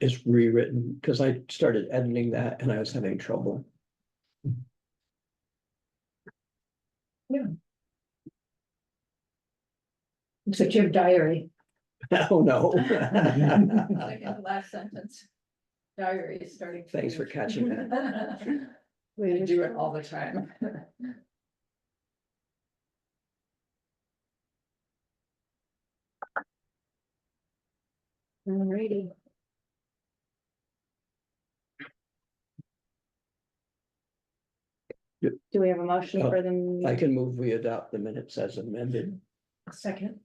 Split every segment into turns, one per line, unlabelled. is rewritten, because I started editing that and I was having trouble.
So your diary.
Oh, no.
Like in the last sentence. Diary is starting. to
Thanks for
use.
catching that.
I do it all the time.
Alrighty.
Yep.
Do we have a motion
Oh,
for them?
I can move, we adopt the minutes as amended.
Second.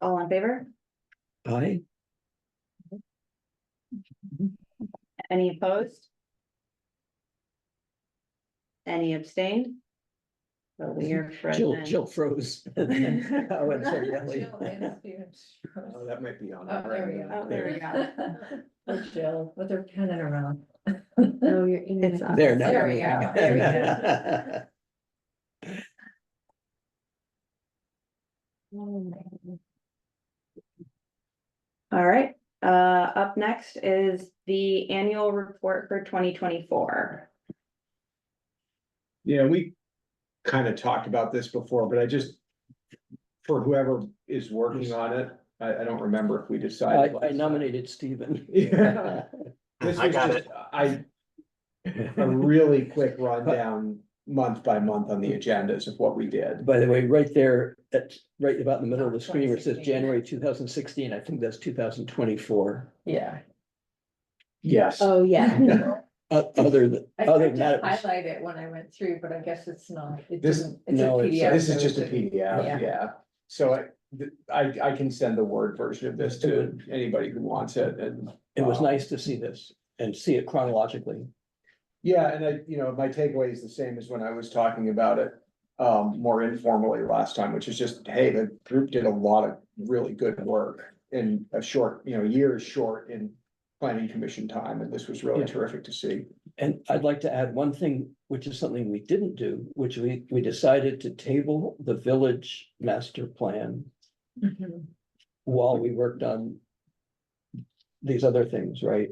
All in favor?
Aye.
Any opposed? Any abstained? So we are
Jill,
present.
Jill froze. Oh, and so Ellie.
Jill and Steve.
Oh, that might be on.
Oh, there we go.
Oh, there we go.
Poor Jill, with her pen in her mouth.
No, you're.
It's
on.
There
There we
now.
go, there we go.
All right, uh, up next is the annual report for twenty twenty-four.
Yeah, we kind of talked about this before, but I just. For whoever is working on it, I, I don't remember if we decided.
I I nominated Stephen.
Yeah. This
I
was
got
just, I, a really quick rundown, month by month on the agendas of what we did.
By the way, right there, at, right about in the middle of the screen, where it says
2016.
January two thousand sixteen, I think that's two thousand twenty-four.
Yeah.
Yes.
Oh, yeah.
Uh, other than,
I
other
tried
than that,
to
it was-
highlight it when I went through, but I guess it's not. It
This-
doesn't. it's a
no, it's-
PDF,
This is
so
just a
it's
PDF,
Yeah.
yeah. So I, th- I, I can send the Word version of this to anybody who wants it and.
it was
um,
nice to see this and see it chronologically.
Yeah, and I, you know, my takeaway is the same as when I was talking about it um more informally last time, which is just, hey, the group did a lot of really good work in a short, you know, years short in planning commission time, and this was really
Yeah.
terrific to see.
And I'd like to add one thing, which is something we didn't do, which we, we decided to table the village master plan
Mhm.
while we worked on these other things, right?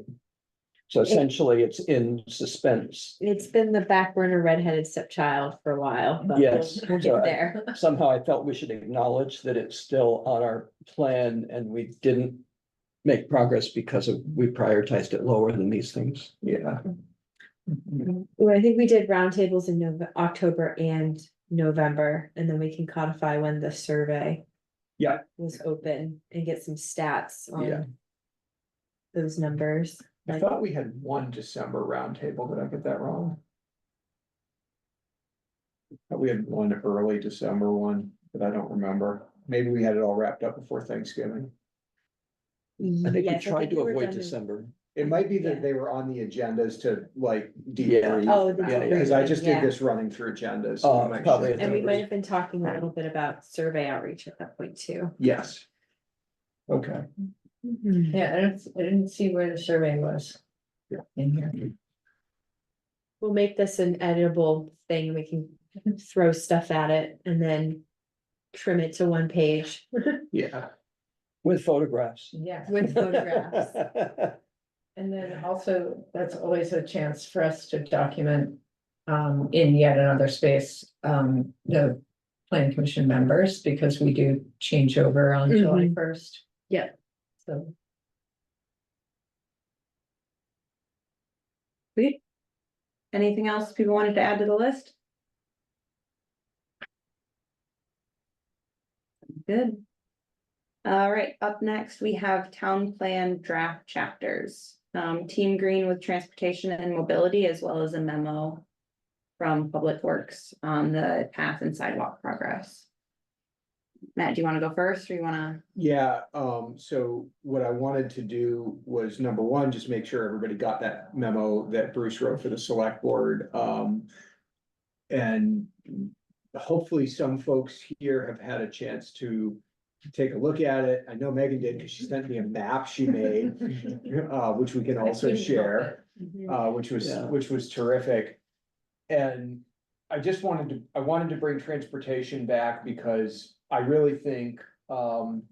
So essentially, it's in suspense.
It's been the back burner redheaded stepchild for a while, but we'll
Yes.
we'll
so
get
I-
there.
Somehow I felt we should acknowledge that it's still on our plan and we didn't make progress because of, we prioritized it lower than these things.
Yeah,
Well, I think we did roundtables in Nov- October and November, and then we can codify when the survey.
Yeah.
Was open and get some stats
Yeah.
on. Those numbers.
I
Like-
thought we had one December roundtable, did I get that wrong? Thought We had one early December one, but I don't remember. Maybe we had it all wrapped up before Thanksgiving.
I think we
Yes,
tried
we
to
were
avoid
done in-
December.
It might be
Yeah.
that they were on the agendas to like
Yeah.
debrief.
Oh, the
Yeah, yeah.
Cause I just did
debriefing, yeah.
this running through agendas.
Oh,
to make
probably.
sure.
And we might have been talking a little bit about survey outreach at that point too.
Yes. Okay,
Yeah, I didn't, I didn't see where the survey was.
Yeah.
In here.
We'll make this an editable thing. We can throw stuff at it and then trim it to one page
yeah,
With photographs.
Yeah,
with photographs.
and then also, that's always a chance for us to document. Um, in yet another space, um, the plan commission members, because we do change over on July first.
Yeah.
So,
Anything else people wanted to add to the list? Good. All right, up next, we have town plan draft chapters. Um, Team Green with Transportation and Mobility, as well as a memo from Public Works on the path and sidewalk progress. Matt, do you want to go first, or you want to?
yeah, um, so what I wanted to do was number one, just make sure everybody got that memo that Bruce wrote for the select board, um. And hopefully some folks here have had a chance to take a look at it. I know Megan did, cause she sent me a map she made, uh, which we can also share. uh, which was,
Yeah.
which was terrific. And I just wanted to, I wanted to bring transportation back because I really think, um,